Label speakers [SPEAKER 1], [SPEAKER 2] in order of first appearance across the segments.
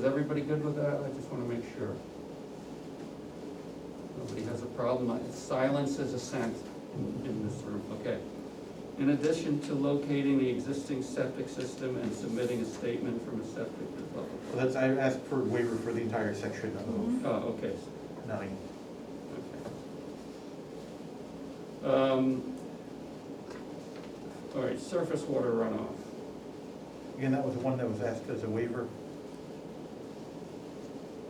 [SPEAKER 1] Is everybody good with that? I just want to make sure. Nobody has a problem. Uh, Silence is assent in- in this room, okay. In addition to locating the existing septic system and submitting a statement from a septic developer.
[SPEAKER 2] Well, that's, I asked for waiver for the entire section of
[SPEAKER 1] Oh, okay,
[SPEAKER 2] nine.
[SPEAKER 1] okay. Um, All right, surface water runoff.
[SPEAKER 2] Again, that was the one that was asked as a waiver.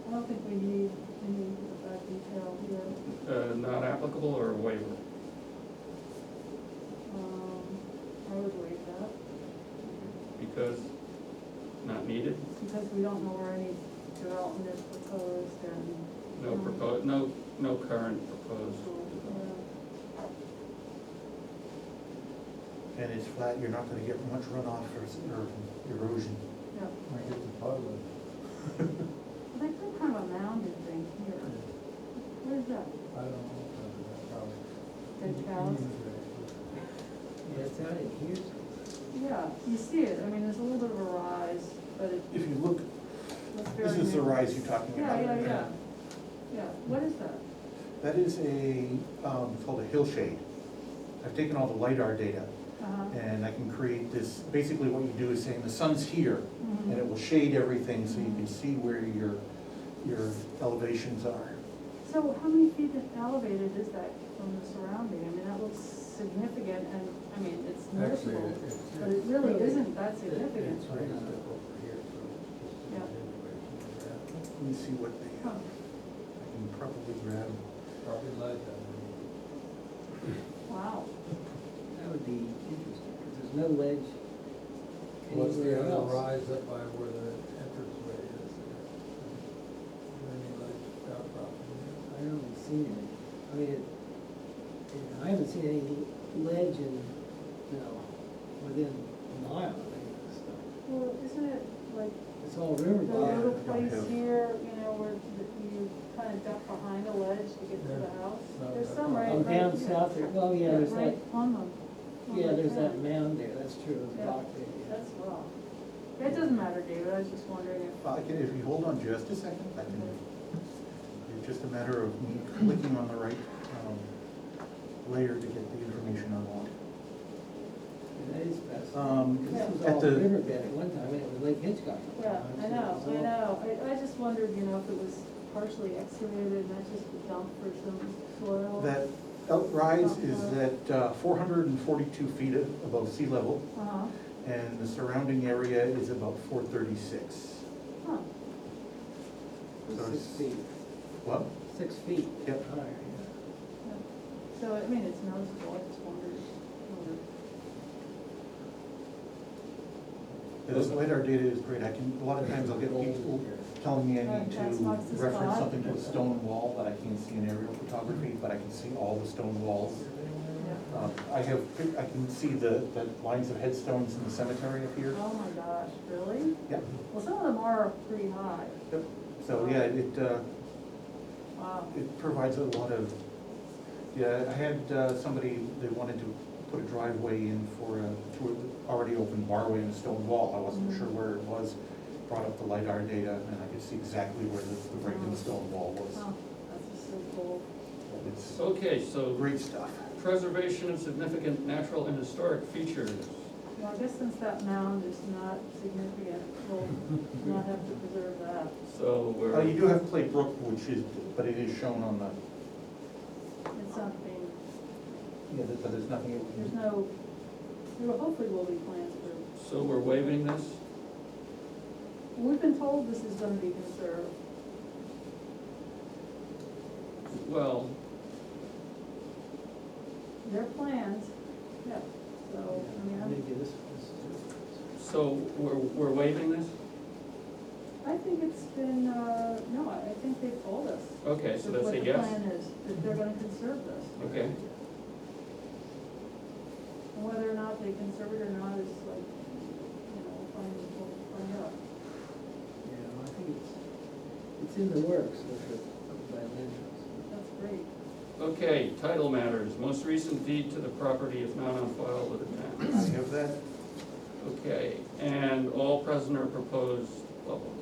[SPEAKER 3] I don't think we need any of that detail here.
[SPEAKER 1] Uh, Not applicable or a waiver?
[SPEAKER 3] Um, I would waive that,
[SPEAKER 1] Because not needed?
[SPEAKER 3] because we don't know where any development is proposed and.
[SPEAKER 1] No
[SPEAKER 3] um,
[SPEAKER 1] proposed, no, no current proposed. development.
[SPEAKER 3] yeah.
[SPEAKER 2] And it's flat, you're not gonna get much runoff or, or erosion.
[SPEAKER 3] Yeah,
[SPEAKER 4] I get the puddle.
[SPEAKER 3] I think some kind of a mounded thing here. What is that?
[SPEAKER 4] I don't know.
[SPEAKER 2] Mm-hmm.
[SPEAKER 3] Dead cows?
[SPEAKER 5] Yeah, it's out in here.
[SPEAKER 3] Yeah, you see it, I mean, there's a little bit of a rise, but it
[SPEAKER 2] If you look,
[SPEAKER 3] looks very.
[SPEAKER 2] this is the
[SPEAKER 3] new.
[SPEAKER 2] rise you're talking
[SPEAKER 3] Yeah,
[SPEAKER 2] about.
[SPEAKER 3] yeah, yeah, yeah, what is that?
[SPEAKER 2] That is a, um, it's called a hillshade. I've taken all the LiDAR data
[SPEAKER 3] Uh-huh.
[SPEAKER 2] and I can create this, basically what you do is saying the sun's here and it
[SPEAKER 3] Mhm.
[SPEAKER 2] will shade everything so you can see where your, your elevations are.
[SPEAKER 3] So how many feet elevated is that from the surrounding? I mean, that looks significant and, I mean, it's
[SPEAKER 4] Actually,
[SPEAKER 3] noticeable,
[SPEAKER 4] it- it's-
[SPEAKER 3] but it really isn't that significant.
[SPEAKER 4] It's right up over here, so.
[SPEAKER 3] Yeah.
[SPEAKER 2] Let me see what they,
[SPEAKER 3] Huh.
[SPEAKER 2] have. I can probably grab.
[SPEAKER 4] Probably like
[SPEAKER 3] Wow,
[SPEAKER 5] That would be interesting, because there's no ledge
[SPEAKER 4] What's the
[SPEAKER 5] anywhere
[SPEAKER 4] other
[SPEAKER 5] else.
[SPEAKER 4] rise up by where the entranceway is? there? Any like outcropping there?
[SPEAKER 5] I haven't seen it. I mean, it, it- I haven't seen any ledge in, you know, within a mile of any of this stuff.
[SPEAKER 3] well, isn't it like
[SPEAKER 5] It's all
[SPEAKER 3] the
[SPEAKER 5] river bottom.
[SPEAKER 3] little
[SPEAKER 2] don't
[SPEAKER 3] place
[SPEAKER 2] have-
[SPEAKER 3] here, you know, where th- you kind of duck behind a ledge to get to the
[SPEAKER 4] Yeah.
[SPEAKER 3] house?
[SPEAKER 4] Not
[SPEAKER 3] There's
[SPEAKER 4] that
[SPEAKER 3] some
[SPEAKER 4] far.
[SPEAKER 3] right,
[SPEAKER 5] Oh,
[SPEAKER 3] right.
[SPEAKER 5] down south there, well, yeah, there's that,
[SPEAKER 3] Right on them.
[SPEAKER 5] yeah, there's that mound there, that's true, the
[SPEAKER 3] Yeah.
[SPEAKER 5] rock there. yeah.
[SPEAKER 3] That's rough. That doesn't matter, David, I was just wondering if.
[SPEAKER 2] I can, if you hold on just a second, I can, it's just a matter of me clicking on the right, um, layer to get the information I
[SPEAKER 5] And That is fascinating.
[SPEAKER 2] want. Um,
[SPEAKER 5] This was
[SPEAKER 2] at
[SPEAKER 5] all
[SPEAKER 2] the-
[SPEAKER 5] riverbed at one time, and it was Lake Hitchcock. at one
[SPEAKER 3] Yeah,
[SPEAKER 5] time,
[SPEAKER 3] I
[SPEAKER 5] so it
[SPEAKER 3] know,
[SPEAKER 5] was
[SPEAKER 3] I
[SPEAKER 5] all-
[SPEAKER 3] know, I, I just wondered, you know, if it was partially excavated and not just dumped for some soil.
[SPEAKER 2] That outrise is at uh, four hundred and forty-two feet above sea level,
[SPEAKER 3] Uh-huh,
[SPEAKER 2] and the surrounding area is about four thirty-six.
[SPEAKER 3] huh,
[SPEAKER 5] It was Six feet,
[SPEAKER 2] Well,
[SPEAKER 5] six feet.
[SPEAKER 2] Yep.
[SPEAKER 5] higher, yeah.
[SPEAKER 3] yeah. so, I mean, it's noticeable, I just wondered, wondered.
[SPEAKER 2] this LiDAR data is great, I can, a lot of times I'll get people telling me I need to
[SPEAKER 3] That- that's marks the
[SPEAKER 2] reference
[SPEAKER 3] spot.
[SPEAKER 2] something to a stone wall that I can't see in aerial photography, but I can see all the stone walls.
[SPEAKER 3] Yeah.
[SPEAKER 2] Um, I have, I can see the, the lines of headstones in the cemetery up here.
[SPEAKER 3] Oh my gosh, really?
[SPEAKER 2] Yep,
[SPEAKER 3] Well, some of them are pretty high,
[SPEAKER 2] yep. So, yeah, it, uh,
[SPEAKER 3] wow,
[SPEAKER 2] it provides a lot of, yeah, I had uh, somebody, they wanted to put a driveway in for a, through an already open barway and a stone wall. I wasn't sure where it was, brought up the LiDAR data, and I could see exactly where the, the break in the stone wall
[SPEAKER 3] huh,
[SPEAKER 2] was.
[SPEAKER 3] that's just so cool.
[SPEAKER 2] It's
[SPEAKER 1] Okay, so
[SPEAKER 2] great stuff.
[SPEAKER 1] preservation of significant natural and historic features.
[SPEAKER 3] Well, I guess since that mound is not significant, we'll not have to preserve that.
[SPEAKER 1] So
[SPEAKER 2] Uh, you
[SPEAKER 1] we're,
[SPEAKER 2] do have Clay Brook, which is, but it is shown on the,
[SPEAKER 3] It's not being,
[SPEAKER 2] yeah, but but there's nothing. it-
[SPEAKER 3] there's no, there hopefully will be plans for
[SPEAKER 1] so we're waiving this?
[SPEAKER 3] We've been told this is gonna be conserved.
[SPEAKER 1] Well,
[SPEAKER 3] Their plans, yeah, so, I mean, I'm-
[SPEAKER 5] Maybe this was.
[SPEAKER 1] so we're, we're waiving this?
[SPEAKER 3] I think it's been, uh, no, I I think they've told us.
[SPEAKER 1] Okay, so that's
[SPEAKER 3] what
[SPEAKER 1] a
[SPEAKER 3] the
[SPEAKER 1] yes?
[SPEAKER 3] plan is, that they're gonna conserve this.
[SPEAKER 1] Okay,
[SPEAKER 3] And whether or not they conserve it or not is like, you know, we'll find, we'll find out.
[SPEAKER 5] Yeah, well, I think it's, it's in the works, which is by land trust.
[SPEAKER 3] That's great.
[SPEAKER 1] okay, title matters, most recent deed to the property is not on file with the town.
[SPEAKER 2] I have that.
[SPEAKER 1] Okay, and all present or proposed, blah, blah,